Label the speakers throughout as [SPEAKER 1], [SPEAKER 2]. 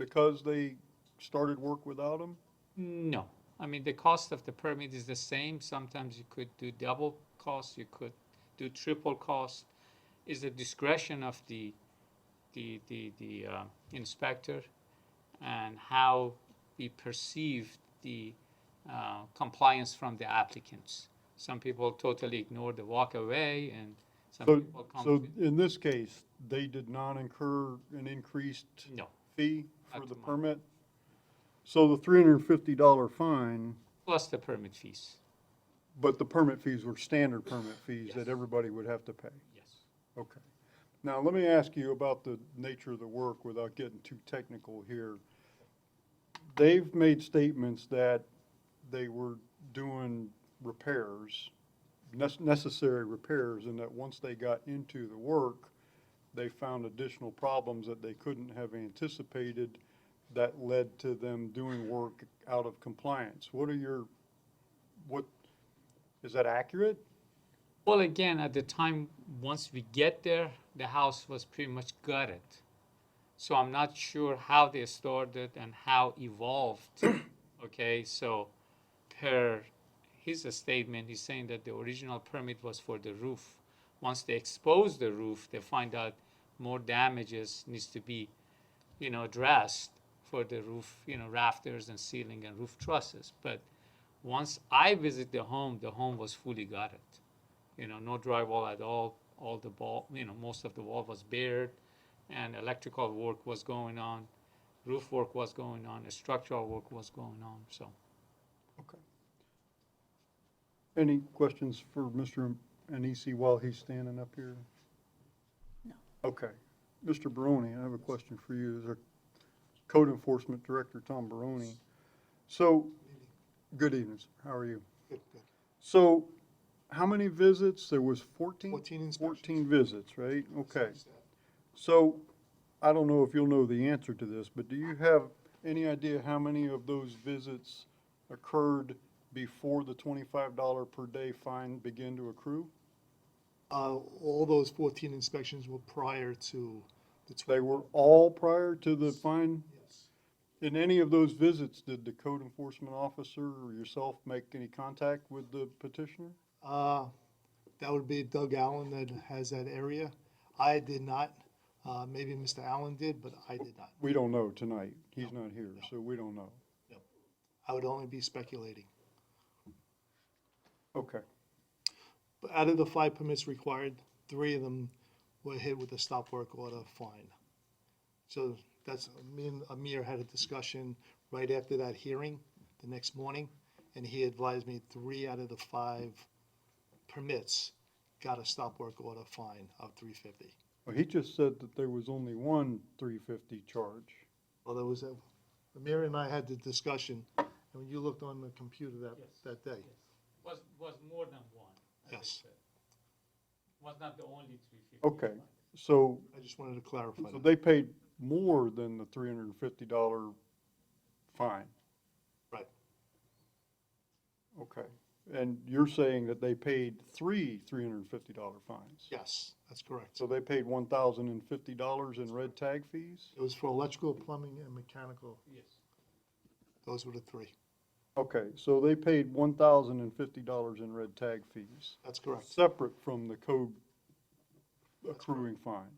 [SPEAKER 1] because they started work without them?
[SPEAKER 2] No, I mean, the cost of the permit is the same. Sometimes you could do double cost, you could do triple cost. Is the discretion of the, the, the, the uh, inspector and how we perceive the uh, compliance from the applicants. Some people totally ignore the walk away and some
[SPEAKER 1] So,
[SPEAKER 2] people come.
[SPEAKER 1] so
[SPEAKER 2] to-
[SPEAKER 1] in this case, they did not incur an increased
[SPEAKER 2] No,
[SPEAKER 1] fee for
[SPEAKER 2] Not
[SPEAKER 1] the
[SPEAKER 2] to my-
[SPEAKER 1] permit? So the three hundred and fifty dollar fine,
[SPEAKER 2] plus the permit fees,
[SPEAKER 1] but the permit fees were standard permit fees
[SPEAKER 2] Yes.
[SPEAKER 1] that everybody would have to pay?
[SPEAKER 2] yes.
[SPEAKER 1] Okay. Now, let me ask you about the nature of the work without getting too technical here. They've made statements that they were doing repairs, nes- necessary repairs, and that once they got into the work, they found additional problems that they couldn't have anticipated that led to them doing work out of compliance. What are your, what, is that accurate?
[SPEAKER 2] Well, again, at the time, once we get there, the house was pretty much gutted. So I'm not sure how they started and how evolved. okay, so per his statement, he's saying that the original permit was for the roof. Once they expose the roof, they find out more damages needs to be, you know, addressed for the roof, you know, rafters and ceiling and roof trusses. But once I visit the home, the home was fully gutted you know, no drywall at all. All the wall, you know, most of the wall was bared, and electrical work was going on, roof work was going on, structural work was going on. So,
[SPEAKER 1] Okay. Any questions for Mr. Anisi while he's standing up here?
[SPEAKER 3] No.
[SPEAKER 1] Okay. Mr. Barone, I have a question for you. Is our code enforcement director, Tom Barone. So, good evening, sir. How are you?
[SPEAKER 4] Good, good.
[SPEAKER 1] So, how many visits? There was 14?
[SPEAKER 4] 14 inspections.
[SPEAKER 1] 14 visits, right? Okay. So, I don't know if you'll know the answer to this, but do you have any idea how many of those visits occurred before the twenty-five dollar per day fine began to accrue?
[SPEAKER 4] Uh, all those fourteen inspections were prior to the
[SPEAKER 1] They
[SPEAKER 4] twelve.
[SPEAKER 1] were all prior to the fine?
[SPEAKER 4] Yes.
[SPEAKER 1] In any of those visits, did the code enforcement officer or yourself make any contact with the petitioner?
[SPEAKER 4] Uh, that would be Doug Allen that has that area. I did not, uh, maybe Mr. Allen did, but I did not.
[SPEAKER 1] We don't know tonight. He's not here, so we don't know.
[SPEAKER 4] I would only be speculating.
[SPEAKER 1] Okay,
[SPEAKER 4] But out of the five permits required, three of them were hit with a stop work order fine. So that's, me and Amir had a discussion right after that hearing, the next morning, and he advised me three out of the five permits got a stop work order fine of three fifty.
[SPEAKER 1] well, he just said that there was only one three fifty charge.
[SPEAKER 4] Well, there was, a- Amir and I had the discussion, and when you looked on the computer that, that day.
[SPEAKER 2] was was more than one.
[SPEAKER 4] as I Yes. said.
[SPEAKER 2] Was not the only three fifty.
[SPEAKER 1] Okay, so
[SPEAKER 4] I just wanted to clarify
[SPEAKER 1] So
[SPEAKER 4] that.
[SPEAKER 1] they paid more than the three hundred and fifty dollar fine?
[SPEAKER 4] Right.
[SPEAKER 1] Okay, and you're saying that they paid three three hundred and fifty dollar fines?
[SPEAKER 4] Yes, that's correct.
[SPEAKER 1] So they paid one thousand and fifty dollars in red tag fees?
[SPEAKER 4] It was for electrical, plumbing, and mechanical.
[SPEAKER 2] Yes.
[SPEAKER 4] Those were the three.
[SPEAKER 1] Okay, so they paid one thousand and fifty dollars in red tag fees,
[SPEAKER 4] That's correct.
[SPEAKER 1] separate from the code accruing fine?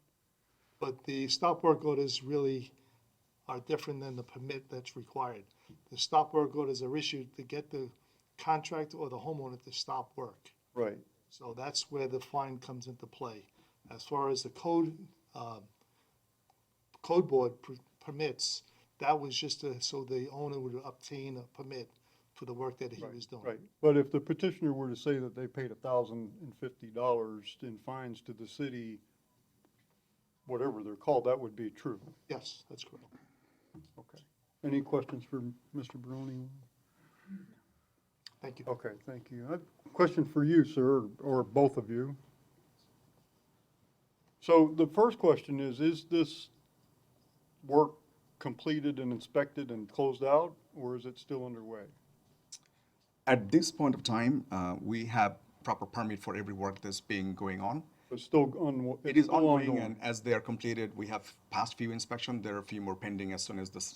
[SPEAKER 4] But the stop work orders really are different than the permit that's required. The stop work orders are issued to get the contractor or the homeowner to stop work.
[SPEAKER 1] Right,
[SPEAKER 4] So that's where the fine comes into play. As far as the code, um, code board per- permits, that was just to- so the owner would obtain a permit for the work that he was doing.
[SPEAKER 1] right. But if the petitioner were to say that they paid thousand and fifty dollars in fines to the city, whatever they're called, that would be true.
[SPEAKER 4] Yes, that's correct.
[SPEAKER 1] Okay. Any questions for Mr. Barone?
[SPEAKER 4] Thank you.
[SPEAKER 1] Okay, thank you. I have a Uh, Question for you, sir, or both of you. So the first question is, is this work completed and inspected and closed out, or is it still underway?
[SPEAKER 5] At this point of time, uh, we have proper permit for every work that's being going on.
[SPEAKER 1] It's still on.
[SPEAKER 5] It is
[SPEAKER 1] still
[SPEAKER 5] ongoing, and as they are completed, we have passed few inspection. There are a few more pending as soon as the s-